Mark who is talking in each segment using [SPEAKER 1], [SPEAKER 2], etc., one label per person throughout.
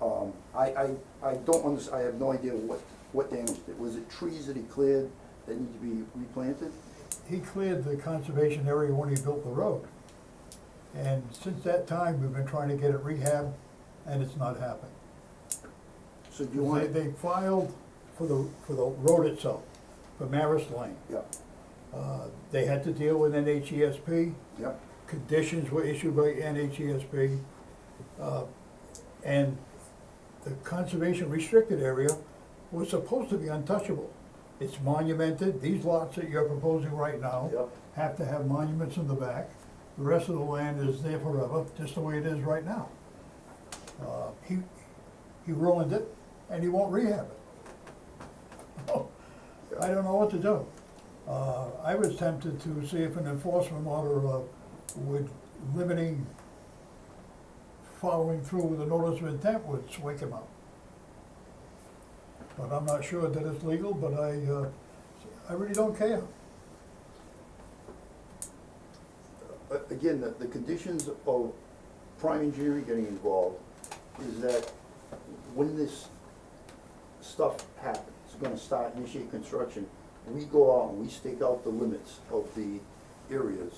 [SPEAKER 1] Um, I, I, I don't under, I have no idea what, what damage, did. was it trees that he cleared that need to be replanted?
[SPEAKER 2] He cleared the conservation area when he built the road. And since that time, we've been trying to get it rehabbed, and it's not happened.
[SPEAKER 1] So do you
[SPEAKER 2] They,
[SPEAKER 1] want?
[SPEAKER 2] they filed for the, for the road itself, for Maris Lane.
[SPEAKER 1] Yeah,
[SPEAKER 2] Uh, They had to deal with E NHESP,
[SPEAKER 1] yeah,
[SPEAKER 2] conditions were issued by NHESP. uh, And the conservation restricted area was supposed to be untouchable. It's monumented, these lots that you're proposing right now
[SPEAKER 1] Yep.
[SPEAKER 2] have to have monuments in the back. The rest of the land is there forever, just the way it is right now. Uh, He, he ruined it, and he won't rehab it. I don't know what to do. Uh, I was tempted to see if an enforcement order uh, would limiting, following through with the notice of intent would wake him up. But I'm not sure that it's legal, but I, uh, I really don't care.
[SPEAKER 1] Uh, again, the, the conditions of prime engineering getting involved is that when this stuff happens, it's gonna start, initiate construction, we go out and we stake out the limits of the areas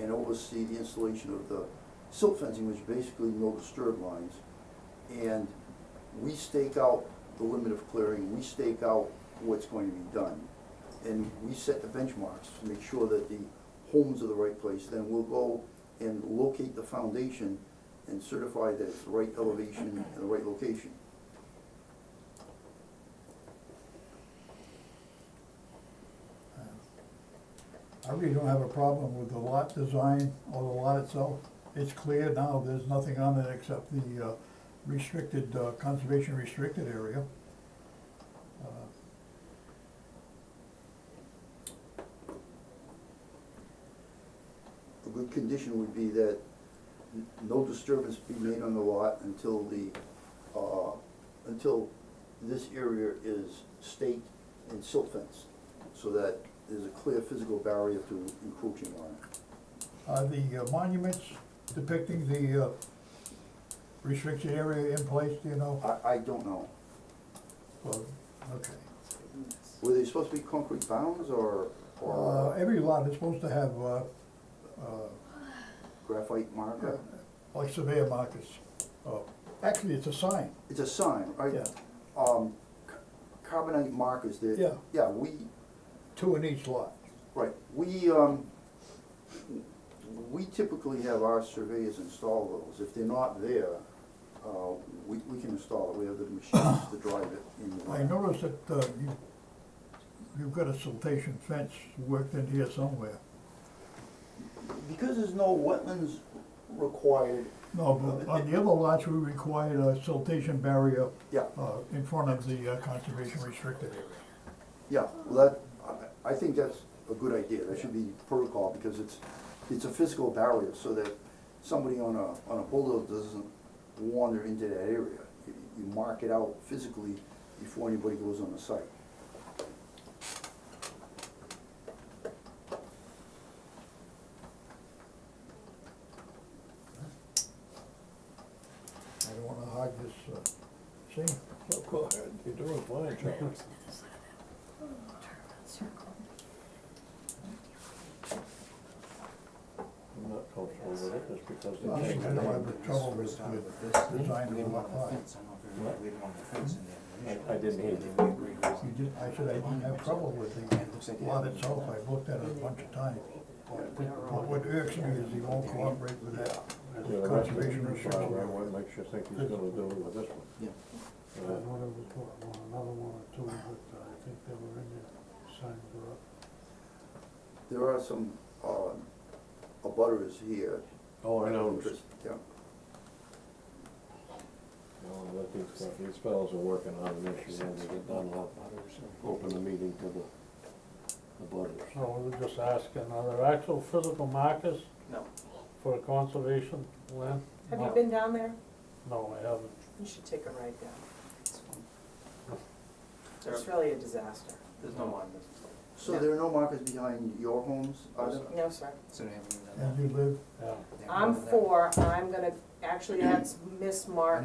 [SPEAKER 1] and oversee the installation of the silt fencing, which basically no disturb lines. And we stake out the limit of clearing, we stake out what's going to be done. And we set the benchmarks to make sure that the homes are the right place, then we'll go and locate the foundation and certify that it's the right elevation and the right location.
[SPEAKER 2] I really don't have a problem with the lot design or the lot itself. It's clear now, there's nothing on it except the uh, restricted, uh, conservation restricted area. Uh,
[SPEAKER 1] A good condition would be that n- no disturbance be made on the lot until the, uh, until this area is staked and silt fenced, so that there's a clear physical barrier to encroaching on it.
[SPEAKER 2] Are the uh, monuments depicting the uh, restricted area in place, do you know?
[SPEAKER 1] I, I don't know,
[SPEAKER 2] Well, Okay.
[SPEAKER 1] were they supposed to be concrete bounds or,
[SPEAKER 2] Uh,
[SPEAKER 1] or
[SPEAKER 2] Every lot is supposed to have, uh, uh,
[SPEAKER 1] graphite marker?
[SPEAKER 2] like surveyor markers. Oh, Actually, it's a sign,
[SPEAKER 1] It's a sign, right?
[SPEAKER 2] yeah,
[SPEAKER 1] um, c- carbonate markers that,
[SPEAKER 2] Yeah.
[SPEAKER 1] yeah, we,
[SPEAKER 2] two in each lot.
[SPEAKER 1] right, we, um, we typically have our surveyors install those. If they're not there, uh, we, we can install it, we have the machines to drive it in. the
[SPEAKER 2] I
[SPEAKER 1] lab.
[SPEAKER 2] noticed that uh, you, you've got a siltation fence worked in here somewhere.
[SPEAKER 1] Because there's no wetlands required,
[SPEAKER 2] No, but on the other lots, we required a siltation barrier
[SPEAKER 1] yeah,
[SPEAKER 2] uh, in front of the uh, conservation restricted area.
[SPEAKER 1] yeah, well, that, I, I think that's a good idea, that should be protocol, because it's, it's a physical barrier, so that somebody on a, on a bulldozer doesn't wander into that area. You you mark it out physically before anybody goes on the site.
[SPEAKER 2] I don't wanna hog this, uh, see?
[SPEAKER 3] Of course, you're doing fine, Charlie. I'm not comfortable with it, just because.
[SPEAKER 2] I
[SPEAKER 3] they
[SPEAKER 2] think I know
[SPEAKER 3] changed it.
[SPEAKER 2] I've been trouble with, with
[SPEAKER 4] this.
[SPEAKER 2] design
[SPEAKER 4] We
[SPEAKER 2] of the
[SPEAKER 4] didn't
[SPEAKER 2] lot.
[SPEAKER 4] want the fence, I don't know if we didn't want the fence in there.
[SPEAKER 3] I- I didn't hear you.
[SPEAKER 4] We agreed with it.
[SPEAKER 2] You did, I said I didn't have trouble with the lot itself, I looked at it a bunch of times. But what irks me is he won't cooperate with that
[SPEAKER 3] Yeah, the rest of it,
[SPEAKER 2] conservation restriction.
[SPEAKER 3] well, what makes you think he's gonna do with this one?
[SPEAKER 4] Yeah.
[SPEAKER 5] I
[SPEAKER 3] Uh,
[SPEAKER 5] know there was one- one- another one or two, but uh, I think they were in there, signs were up.
[SPEAKER 1] There are some, uh, abutters here.
[SPEAKER 3] Oh, I know,
[SPEAKER 1] Interest, Yeah,
[SPEAKER 3] No, I think these fel- these fellows are working on an issue, and they get done, I'll open the meeting to the, the butters.
[SPEAKER 5] So we were just asking, are there actual physical markers
[SPEAKER 4] No.
[SPEAKER 5] for conservation land?
[SPEAKER 6] Have
[SPEAKER 5] No.
[SPEAKER 6] you been down there?
[SPEAKER 5] No, I haven't.
[SPEAKER 6] You should take a ride down.
[SPEAKER 4] it's fine.
[SPEAKER 6] It's
[SPEAKER 4] There-
[SPEAKER 6] really a disaster.
[SPEAKER 4] There's no line, there's
[SPEAKER 1] so there are no markers behind your homes, are there?
[SPEAKER 6] No, sir.
[SPEAKER 4] so they haven't even done
[SPEAKER 2] And you live
[SPEAKER 5] Yeah.
[SPEAKER 4] that. They haven't
[SPEAKER 6] I'm
[SPEAKER 4] done that.
[SPEAKER 6] for, I'm gonna, actually, that's Miss Mark